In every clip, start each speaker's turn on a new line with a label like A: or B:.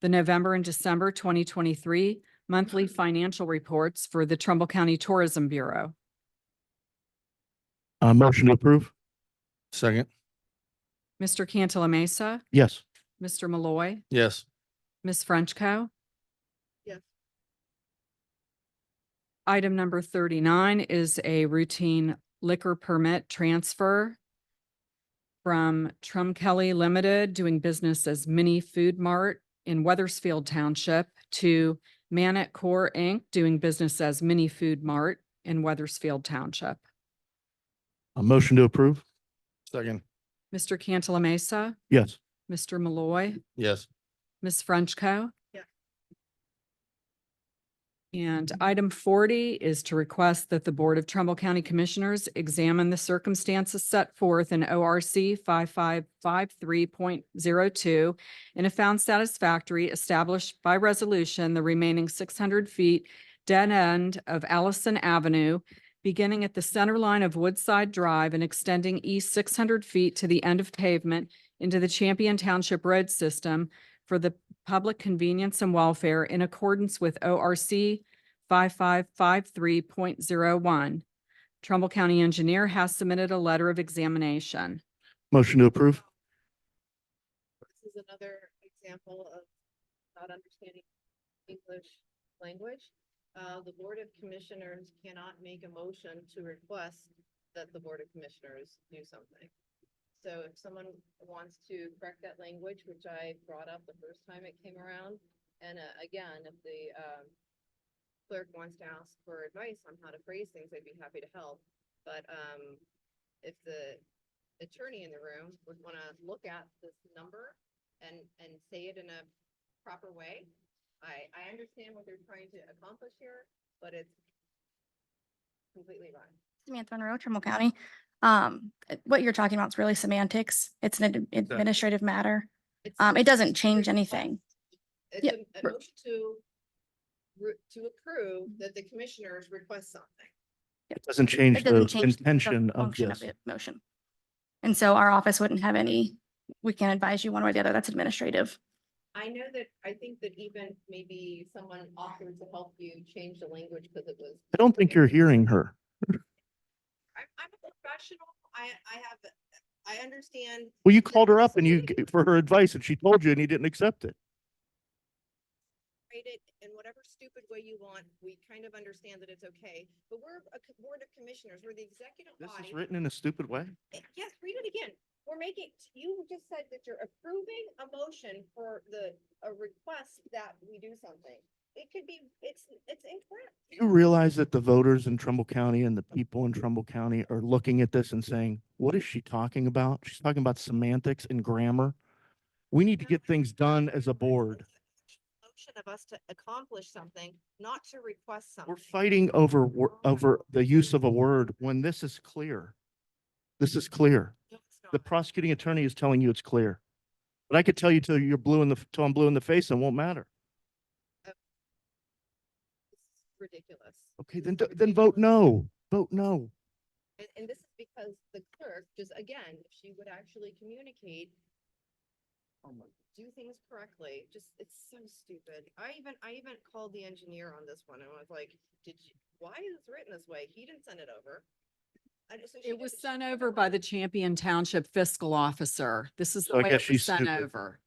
A: the November and December twenty twenty-three monthly financial reports for the Trumbull County Tourism Bureau.
B: Uh, motion to approve. Second.
A: Mr. Cantala Mesa,
B: Yes.
A: Mr. Malloy,
B: Yes.
A: Ms. Frenchco.
C: Yes.
A: Item number thirty-nine is a routine liquor permit transfer from Trum Kelly Limited, doing business as Mini Food Mart in Weathersfield Township to Manat Core Inc., doing business as Mini Food Mart in Weathersfield Township.
B: A motion to approve. Second.
A: Mr. Cantala Mesa,
B: Yes.
A: Mr. Malloy.
B: Yes.
A: Ms. Frenchco.
C: Yeah.
A: And item forty is to request that the Board of Trumbull County Commissioners examine the circumstances set forth in O R C five five five three point zero two and if found satisfactory, established by resolution the remaining six hundred feet dead end of Allison Avenue, beginning at the center line of Woodside Drive and extending east six hundred feet to the end of pavement into the Champion Township Road System for the public convenience and welfare in accordance with O R C five five five three point zero one. Trumbull County Engineer has submitted a letter of examination.
B: Motion to approve.
C: This is another example of not understanding English language. Uh, the Board of Commissioners cannot make a motion to request that the Board of Commissioners do something. So if someone wants to correct that language, which I brought up the first time it came around, and uh, again, if the, um, clerk wants to ask for advice on how to phrase things, I'd be happy to help. But, um, if the attorney in the room would want to look at this number and, and say it in a proper way. I, I understand what they're trying to accomplish here, but it's completely wrong.
D: Samantha Monroe, Trimble County. Um, uh, what you're talking about is really semantics. It's an ad- administrative matter.
C: It's-
D: Um, it doesn't
C: it's a
D: change
C: request.
D: anything.
C: It's
D: Yeah,
C: a- a
D: r-
C: motion to, re- to approve that the commissioners request something.
B: It doesn't change
D: It doesn't
B: the
D: change the
B: intention of
D: function
B: this.
D: it- Motion. And so our office wouldn't have any, we can't advise you one way or the other. That's administrative.
C: I know that, I think that even maybe someone offered to help you change the language because it was
B: I don't think you're hearing her.
C: I'm, I'm a professional. I, I have, I understand.
B: Well, you called her up and you, g- for her advice and she told you and you didn't accept it.
C: Rate it in whatever stupid way you want. We kind of understand that it's okay, but we're a co- board of commissioners. We're the executive
B: This
C: body.
B: is written in a stupid way.
C: Eh, Yes, read it again. We're making, you just said that you're approving a motion for the, a request that we do something. It could be, it's, it's incorrect.
B: Do You realize that the voters in Trumbull County and the people in Trumbull County are looking at this and saying, what is she talking about? She's talking about semantics and grammar. We need to get things done as a board.
C: Motion of us to accomplish something, not to request something.
B: We're fighting over, wor- over the use of a word when this is clear. This is clear.
C: No, it's
B: The
C: not.
B: prosecuting attorney is telling you it's clear. But I could tell you till you're blue in the, f- till I'm blue in the face and it won't matter.
C: This is Ridiculous.
B: Okay,
C: This
B: then,
C: is
B: d- then
C: ridiculous.
B: vote no. Vote no.
C: And, and this is because the clerk, just again, if she would actually communicate, do things correctly, just, it's so stupid. I even, I even called the engineer on this one and was like, did you, why is this written this way? He didn't send it over. I just- so she
A: It was
C: didn't-
A: sent over by the Champion Township Fiscal Officer. This is
B: So
A: the
B: I
A: way it was
B: guess she's
A: sent
B: stupid.
A: over.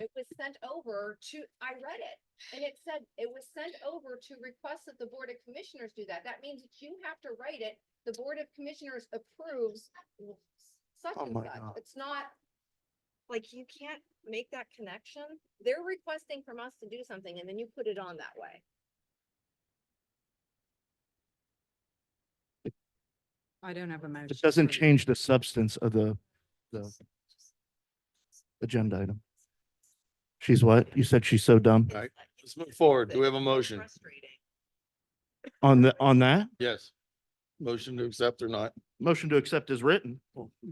C: It was sent over to, I read it, and it said, it was sent over to request that the Board of Commissioners do that. That means that you have to write it. The Board of Commissioners approves w- such
B: Oh
C: and
B: my
C: such.
B: God.
C: It's not, like, you can't make that connection. They're requesting from us to do something, and then you put it on that way.
A: I don't have a motion.
B: It doesn't change the substance of the, the agenda item. She's what? You said she's so dumb
E: All right, let's move forward. Do we have a
C: It's
E: motion?
C: Frustrating.
B: on the, on that?
E: Yes. Motion to accept or not?
B: Motion to accept is written.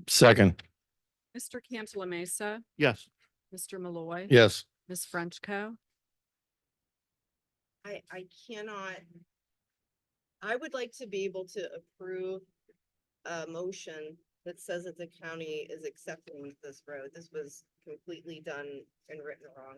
E: Second.
A: Mr. Cantala Mesa,
B: Yes.
A: Mr. Malloy.
E: Yes.
A: Ms. Frenchco.
C: I, I cannot. I would like to be able to approve a motion that says that the county is accepting this road. This was completely done and written wrong.